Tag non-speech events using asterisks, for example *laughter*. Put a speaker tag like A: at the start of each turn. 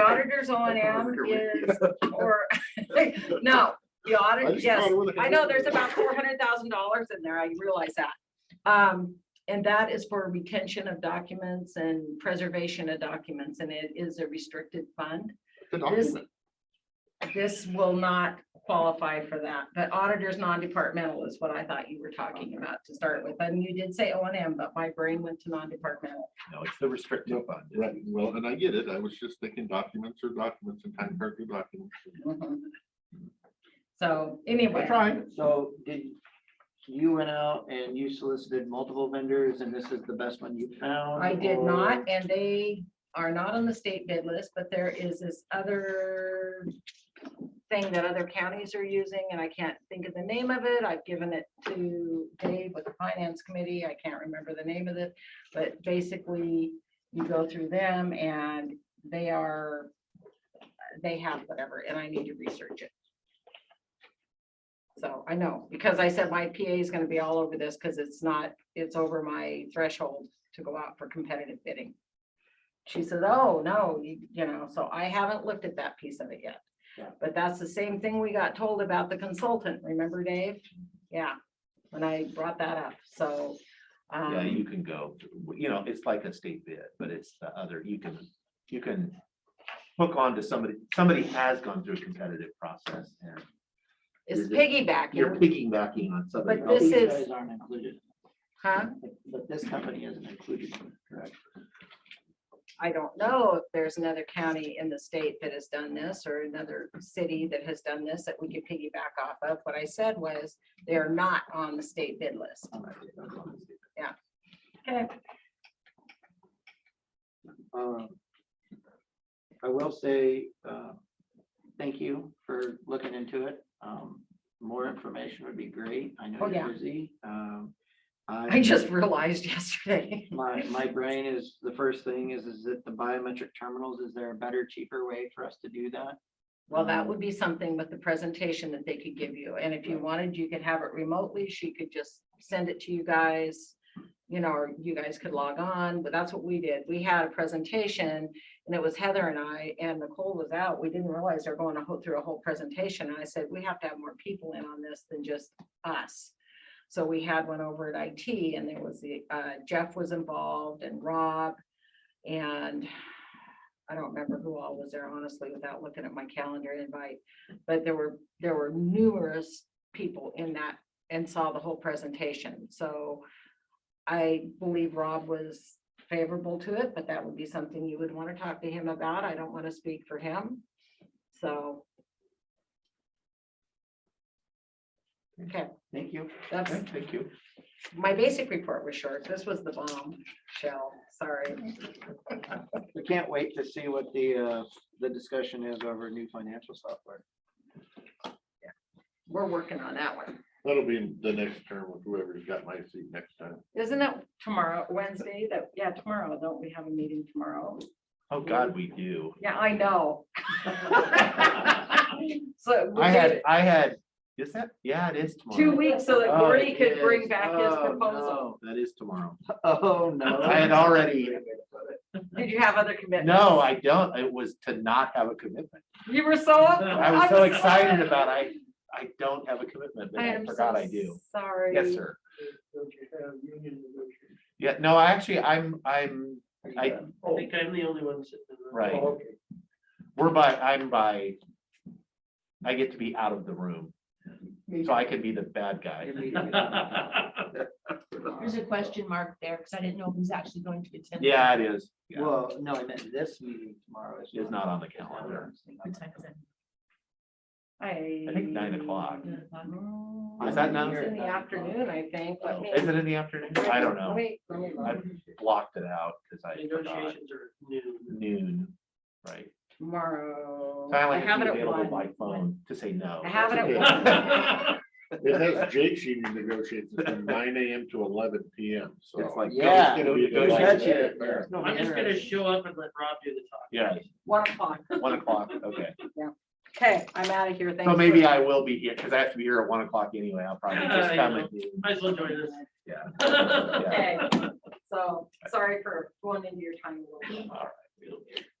A: auditor's O and
B: *laughs*
A: M is, or, *laughs* no, the
B: I
A: audit,
B: just
A: yes.
B: thought it was a-
A: I know there's about four
B: *laughs*
A: hundred thousand dollars in there. I realize that. Um, and that is for retention of documents and preservation of documents, and it is a restricted fund.
B: The
A: This,
B: document.
A: this will not qualify for that, but auditors non-departmental is what I thought you were talking about to start with. And you did say O and M, but my brain went to non-departmental.
C: No, it's the restricted
B: No,
C: fund.
B: Right, well, and I get it. I was just thinking documents or documents and time cards or documents. Mm-hmm.
A: Mhm. So
B: I
A: anyway,
B: tried.
D: So did, you went out and you solicited multiple vendors and this is the best one you found?
A: I did
D: or-
A: not, and they are not on the state bid list, but there is this other thing that other counties are using, and I can't think of the name of it. I've given it to Dave with the finance committee. I can't remember the name of it. But basically, you go through them and they are, they have whatever, and I need to research it. So I know, because I said my PA is gonna be all over this, because it's not, it's over my threshold to go out for competitive bidding. She says, oh, no, you, you know, so I haven't looked at that piece of it yet.
D: Yeah.
A: But that's the same thing we got told about the consultant, remember Dave? Yeah, when I brought that up, so.
C: Yeah,
A: um,
C: you can go, you know, it's like a state bid, but it's the other, you can, you can hook on to somebody, somebody has gone through a competitive process and
A: It's
C: You're just- you're
A: piggybacking,
C: piggybacking on somebody.
A: But
D: Well,
C: else.
A: this
D: These
A: is-
D: guys aren't included,
A: huh?
D: but- but this company isn't included, correct?
A: I don't know if there's another county in the state that has done this or another city that has done this that we could piggyback off of. What I said was they are not on the state bid list. Okay,
D: Um, I will say, uh, thank you for looking into it. Um, More information would be great. I know
A: Oh, yeah.
D: you're busy. Um,
A: I just realized *laughs* yesterday.
D: My, my brain is, the first thing is, is that the biometric terminals, is there a better, cheaper way for us to do that?
A: Well, that would be something with the presentation that they could give you. And if you wanted, you could have it remotely. She could just send it to you guys. You know, or you guys could log on, but that's what we did. We had a presentation and it was Heather and I and Nicole was out. We didn't realize they're going to go through a whole presentation. And I said, we have to have more people in on this than just us. So we had one over at IT and there was the, uh, Jeff was involved and Rob and I don't remember who all was there honestly without looking at my calendar invite. But there were, there were numerous people in that and saw the whole presentation. So I believe Rob was favorable to it, but that would be something you would want to talk to him about. I don't want to speak for him. So
D: Thank you.
A: that's,
C: Okay, Thank you.
A: my basic report was short. This was the bomb shell, sorry.
D: We can't wait to see what the, uh, the discussion is over new financial software.
A: We're working on that one.
B: That'll be in the next term with whoever's got my seat next time.
A: Isn't it tomorrow, Wednesday? That, yeah, tomorrow. Don't we have a meeting tomorrow?
C: Oh, God, we do.
A: Yeah, I
D: *laughs*
A: know. So we
C: I had,
A: gave
C: I had, is that, yeah, it is tomorrow.
A: two weeks so that
D: Oh,
A: Gordy
D: it
A: could bring
D: is.
A: back his
D: Oh,
A: proposal.
D: no.
C: That is
A: *laughs*
C: tomorrow.
D: Oh, no.
C: I had already,
A: Did you have other commitments?
C: no, I don't. It was to not have a commitment.
A: You were
D: *laughs*
A: so.
C: I was so excited about, I, I don't have a commitment, but
A: I
C: I
A: am so
C: forgot I do.
A: Sorry.
C: Yes, sir. Yeah, no, I actually, I'm, I'm, I,
E: I think I'm the only one sitting. in the- Oh,
C: Right. we're by, I'm by. I get to be out of the room, so I can be the bad
E: *laughs*
C: guy. *laughs*
F: There's a question mark there, because I didn't know who's actually going to attend.
C: Yeah, it is. Yeah,
D: Well, no, I meant this meeting tomorrow is.
C: It's not on the calendar.
F: What time is it?
A: I.
C: I think nine o'clock.
F: Nine o'clock?
C: Is that now?
A: It's in the afternoon, I think, let me.
C: Is it in the afternoon? I don't know.
A: Wait, let me look.
C: I blocked it out because I forgot
E: Negotiations are noon.
C: noon, right?
A: Tomorrow.
C: I
A: I
C: like to
A: have
C: be
A: it at
C: available
A: one.
C: by phone to say no.
A: I have it
C: *laughs*
A: at one.
E: That's
B: It has Jake's union negotiations from nine AM to eleven PM, so.
C: It's like.
D: Yeah.
C: go
D: Got
C: negotiate.
D: you. There's no
E: I'm just gonna
D: error.
E: show up and let Rob do the talking.
C: Yeah,
A: One o'clock.
C: one o'clock, okay.
A: Okay, I'm out of here. Thanks.
C: So
A: for-
C: maybe I will be here, because I have to be here at one o'clock anyway, I'll probably
E: Yeah,
C: just
E: you
C: come
E: know.
C: and.
E: Might as well join us. *laughs*
C: Yeah.
E: Yeah.
A: Okay, so sorry for going into your time a little bit.
C: All right.